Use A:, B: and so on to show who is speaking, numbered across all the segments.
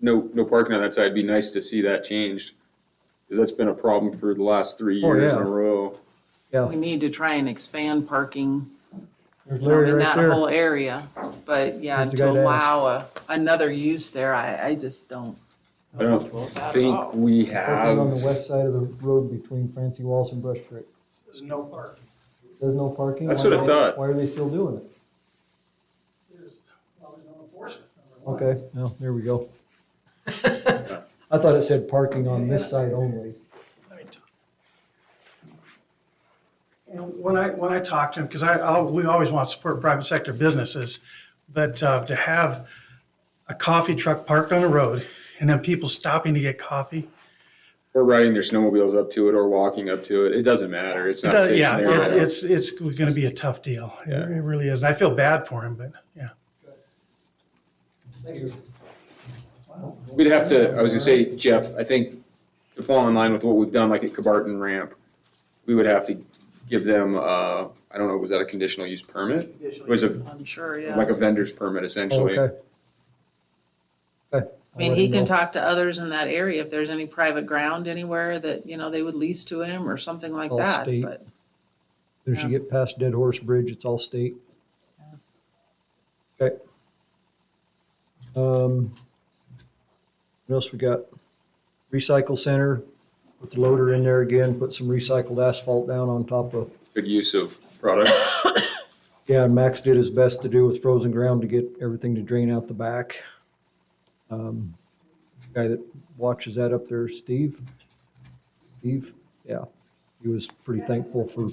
A: no, no parking on that side, it'd be nice to see that changed. Because that's been a problem for the last three
B: Oh,
A: years in
B: yeah.
A: a row.
B: Yeah,
C: We need to try and expand parking
B: there's
C: you know,
B: Larry
C: in
B: right
C: that
B: there.
C: whole area. But yeah,
B: There's the guy
C: to
B: to
C: allow a, another use there, I, I just don't.
A: I don't
C: that at all.
A: think we
B: Parking on the west
A: have,
B: side of the road between Francie Walls and Brush Creek.
D: There's no parking.
B: There's no parking.
A: That's
B: Why
A: what I
B: are-
A: thought.
B: Why are they still doing it?
D: There's, well, there's no enforcement, number one.
B: Okay, well, there we go. I thought it said parking on this side only.
D: And when I, when I talk to him, because I, I'll, we always want to support private sector businesses, but uh, to have a coffee truck parked on the road and then people stopping to get coffee,
A: or riding their snowmobiles up to it or walking up to it, it doesn't matter, it's not a
D: that-
A: safe
D: yeah,
A: scenario.
D: it's, it's, it's going to be a tough deal. It it really is. And I feel bad for him, but yeah.
A: We'd have to, I was gonna say, Jeff, I think to fall in line with what we've done, like at Cabarton Ramp, we would have to give them, uh, I don't know, was that a conditional use permit? It was a,
C: I'm sure, yeah.
A: like a vendor's permit essentially.
B: Okay. Okay.
C: I mean, he can talk to others in that area if there's any private ground anywhere that, you know, they would lease to him or something like
B: All
C: that,
B: state.
C: but.
B: As you get past Dead Horse Bridge, it's all state. Okay. Um, what else we got? Recycle center, put the loader in there again, put some recycled asphalt down on top of.
A: Good use of product.
B: Yeah, and Max did his best to do with frozen ground to get everything to drain out the back. Um, Guy that watches that up there, Steve? Steve, yeah, he was pretty thankful for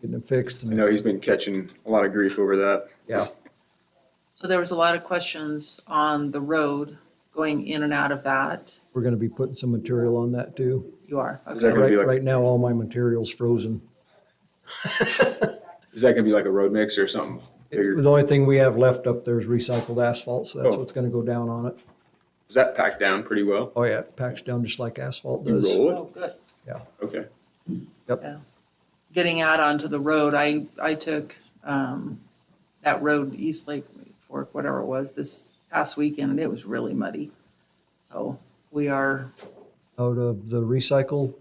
B: getting it fixed
A: I
B: and,
A: know he's been catching a lot of grief over that.
B: yeah.
C: So there was a lot of questions on the road going in and out of that.
B: We're gonna be putting some material on that too.
C: You are,
A: Is that
C: okay.
A: gonna
B: Right,
A: be like,
B: right now, all my material's frozen.
A: is that gonna be like a road mix or something? bigger?
B: The only thing we have left up there is recycled asphalt, so that's
A: Oh.
B: what's gonna go down on it.
A: Is that packed down pretty well?
B: Oh yeah, it packs down just like asphalt
A: You
B: does.
A: roll
C: Oh, good.
A: it? Okay.
C: Getting out onto the road, I, I took, um, that road, East Lake Fork, whatever it was, this past weekend, and it was really muddy. So we are,
B: Out of the recycle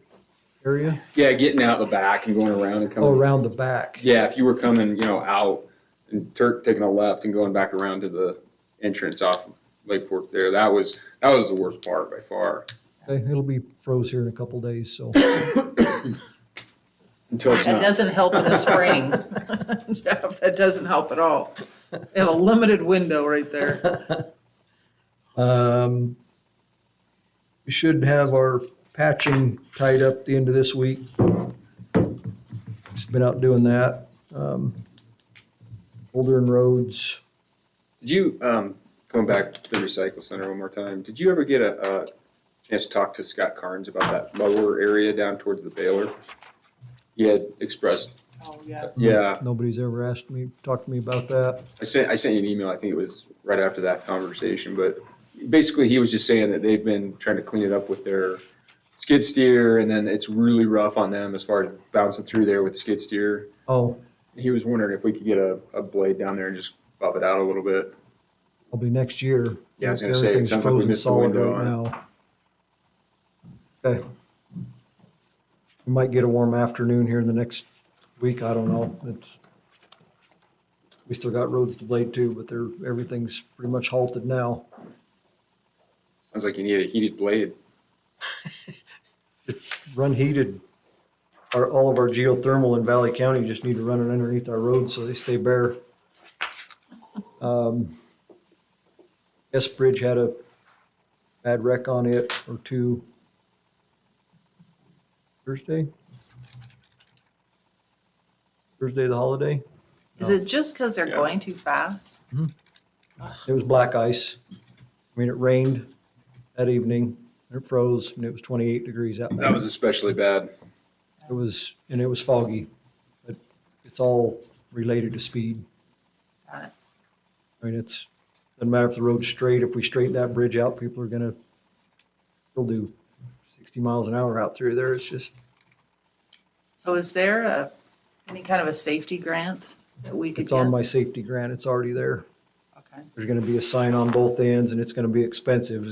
B: area,
A: Yeah, getting out the back and going around and
B: oh,
A: coming.
B: around the back.
A: Yeah, if you were coming, you know, out and Turk taking a left and going back around to the entrance off of Lake Fork there, that was, that was the worst part by far.
B: Okay, it'll be froze here in a couple days, so.
A: Until it's
C: that
A: not.
C: doesn't help in the spring. Jeff, that doesn't help at all. We have a limited window right there.
B: Um, we should have our patching tied up the end of this week. Just been out doing that. Um, Bouldering roads.
A: Did you, um, going back to the recycle center one more time, did you ever get a, a chance to talk to Scott Carnes about that lower area down towards the Baylor? He had expressed,
C: Oh, yeah.
B: Mm-hmm.
A: yeah,
B: Nobody's ever asked me, talked to me about that.
A: I sent, I sent you an email, I think it was right after that conversation, but basically he was just saying that they've been trying to clean it up with their skid steer and then it's really rough on them as far as bouncing through there with the skid steer.
B: Oh,
A: He was wondering if we could get a, a blade down there and just buff it out a little bit.
B: probably next year.
A: Yeah, I was gonna say, it
B: Everything's
A: sounds like we
B: frozen
A: missed the
B: solid
A: window
B: right
A: on
B: now. Okay. We might get a warm afternoon here in the next week, I don't know, it's, we still got roads to blade too, but they're, everything's pretty much halted now.
A: Sounds like you need a heated blade.
B: Run heated, our, all of our geothermal in Valley County just need to run it underneath our roads so they stay bare. Um, S Bridge had a bad wreck on it or two. Thursday? Thursday, the holiday?
C: Is it just because they're
A: Yeah.
C: going too fast?
B: It was black ice. I mean, it rained that evening, and it froze, and it was twenty-eight degrees out.
A: That was especially bad.
B: It was, and it was foggy, but it's all related to speed.
C: Got it.
B: I mean, it's, doesn't matter if the road's straight, if we straighten that bridge out, people are gonna still do sixty miles an hour out through there. It's just,
C: So is there a, any kind of a safety grant that we could
B: it's
C: get?
B: on my safety grant. It's already there.
C: Okay.
B: There's gonna be a sign on both ends and it's gonna be expensive.